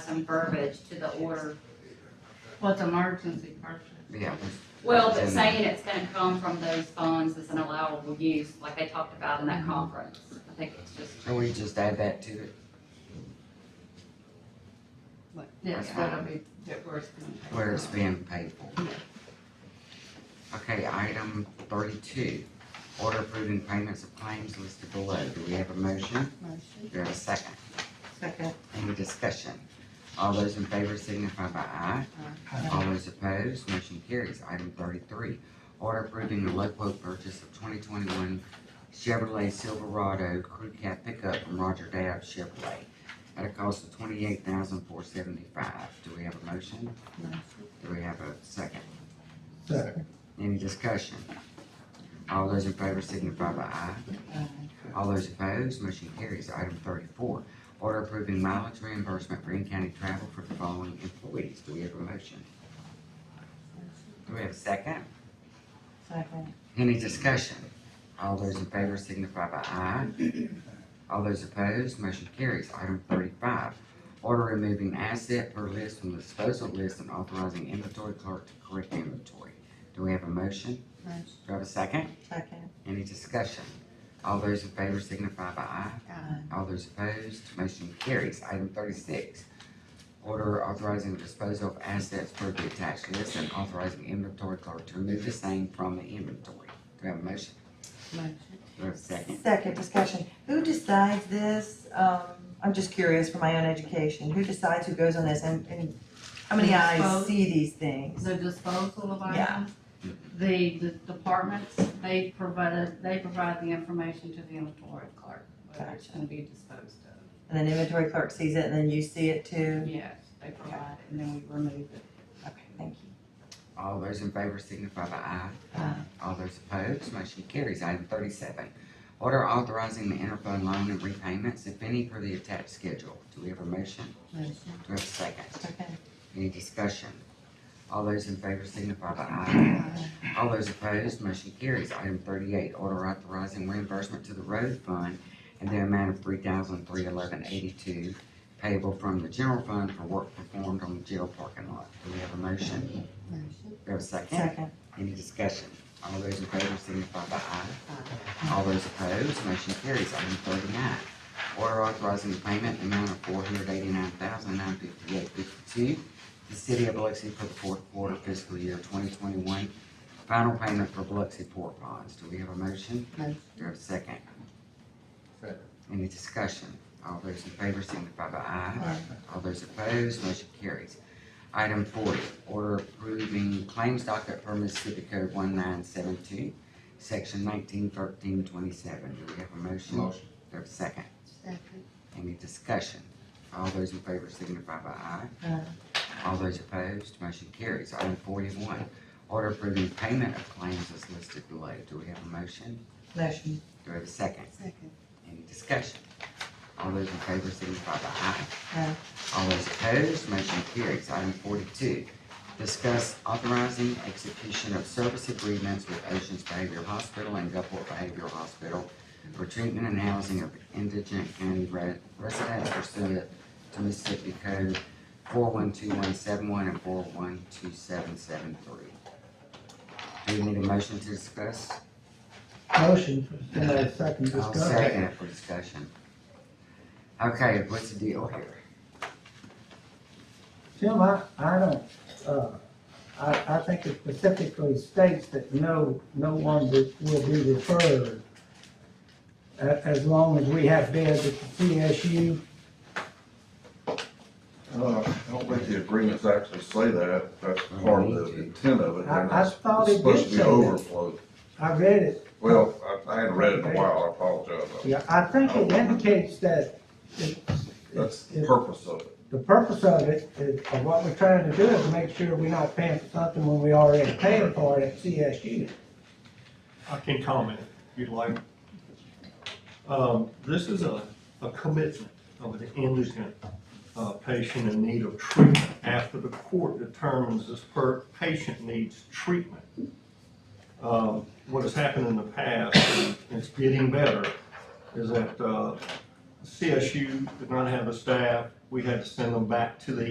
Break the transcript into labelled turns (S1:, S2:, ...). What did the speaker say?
S1: some verbiage to the order.
S2: Well, it's emergency purchase.
S3: Yeah.
S1: Well, but
S3: And-
S1: saying it's gonna come from those funds as an allowable use, like they talked about in that conference. I think it's just,
S3: Can we just add that to it,
S2: That's gonna be, that where it's gonna be.
S3: where it's being paid for?
S2: Yeah.
S3: Okay, item thirty-two, order approving payments of claims listed below. Do we have a motion?
S2: Motion.
S3: Do we have a second?
S2: Second.
S3: Any discussion? All those in favor signify by aye. All those opposed, motion carries. Item thirty-three, order approving the low quote purchase of twenty twenty-one Chevrolet Silverado crew cab pickup from Roger Dab Chevrolet at a cost of twenty-eight thousand four seventy-five. Do we have a motion?
S2: Motion.
S3: Do we have a second?
S4: Second.
S3: Any discussion? All those in favor signify by aye.
S2: Aye.
S3: All those opposed, motion carries. Item thirty-four, order approving mileage reimbursement for in-county travel for the following employees. Do we have a motion? Do we have a second?
S2: Second.
S3: Any discussion? All those in favor signify by aye. All those opposed, motion carries. Item thirty-five, order removing asset per list from the disposal list and authorizing inventory clerk to correct inventory. Do we have a motion? Do
S2: Motion.
S3: we have a second?
S2: Second.
S3: Any discussion? All those in favor signify by aye.
S2: Aye.
S3: All those opposed, motion carries. Item thirty-six, order authorizing the disposal of assets per the attached list and authorizing inventory clerk to remove the same from the inventory. Do we have a motion?
S2: Motion.
S3: Do we have a second?
S5: Second discussion, who decides this, um, I'm just curious for my own education, who decides who goes on this and, and how many eyes
S2: Vote.
S5: see these things?
S2: The disposal of
S5: Yeah.
S2: items, the, the departments, they provided, they provide the information to the inventory clerk, whether it's gonna be disposed of.
S5: And then inventory clerk sees it and then you see it too?
S2: Yes, they provide, it, and then we remove it.
S5: Okay, thank you.
S3: All those in favor signify by aye.
S2: Aye.
S3: All those opposed, motion carries. Item thirty-seven, order authorizing the interfund loan and repayments, if any, per the attached schedule. Do we have a motion? Do
S2: Motion.
S3: we have a second?
S5: Second.
S3: Any discussion? All those in favor signify by aye. All those opposed, motion carries. Item thirty-eight, order authorizing reimbursement to the road fund and the amount of three thousand three eleven eighty-two payable from the general fund for work performed on the jail parking lot. Do we have a motion? Do
S2: Motion.
S3: we have a second?
S5: Second,
S3: Any discussion? All those in favor signify by aye. All those opposed, motion carries. Item thirty-nine, order authorizing the payment in the amount of four hundred eighty-nine thousand nine fifty-eight fifty-two to the city of Biloxi for the fourth quarter fiscal year twenty twenty-one. Final payment for Biloxi Port Ponds. Do we have a motion?
S2: Motion.
S3: Do we have a second?
S4: Second.
S3: Any discussion? All those in favor signify by aye. All those opposed, motion carries. Item forty, order approving claims docket per Mississippi Code one nine seven two, section nineteen thirteen twenty-seven. Do we have a motion?
S4: Motion.
S3: Do we have a second?
S2: Second.
S3: Any discussion? All those in favor signify by aye.
S2: Aye.
S3: All those opposed, motion carries. Item forty-one, order approving payment of claims as listed below. Do we have a motion?
S5: motion,
S3: Do we have a second?
S2: Second.
S3: Any discussion? All those in favor signify by aye.
S5: Aye.
S3: All those opposed, motion carries. Item forty-two, discuss authorizing execution of service agreements with Oceans Behavioral Hospital and Gulfport Behavioral Hospital for treatment and housing of indigent county re- residents pursuant to Mississippi Code four one two one seven one and four one two seven seven three. Do we need a motion to discuss?
S4: Motion for somebody second
S3: I'll
S4: discussion.
S3: second it for discussion. Okay, what's the deal here?
S4: Jim, I, I don't, uh, I, I think it specifically states that no, no one will will be referred a- as long as we have bids at the CSU.
S6: Uh, I don't think the agreements actually say that, that's part of the intent of it.
S4: I-
S6: and
S4: I
S6: it's-
S4: thought it
S6: It's supposed
S4: did
S6: to
S4: say
S6: be
S4: that.
S6: overflow.
S4: I read it,
S6: Well, I, I hadn't read it in a while, I apologize.
S4: yeah, I think it indicates that it's,
S6: That's
S4: it's,
S6: the purpose of it.
S4: the purpose of it is, of what we're trying to do is make sure we're not paying for something when we already paying for it at CSU.
S7: I can comment if you'd like. Um, this is a, a commitment of an indigent, uh, patient in need of treatment after the court determines this per, patient needs treatment. Um, what has happened in the past, and it's getting better, is that, uh, CSU did not have the staff we had to send them back to the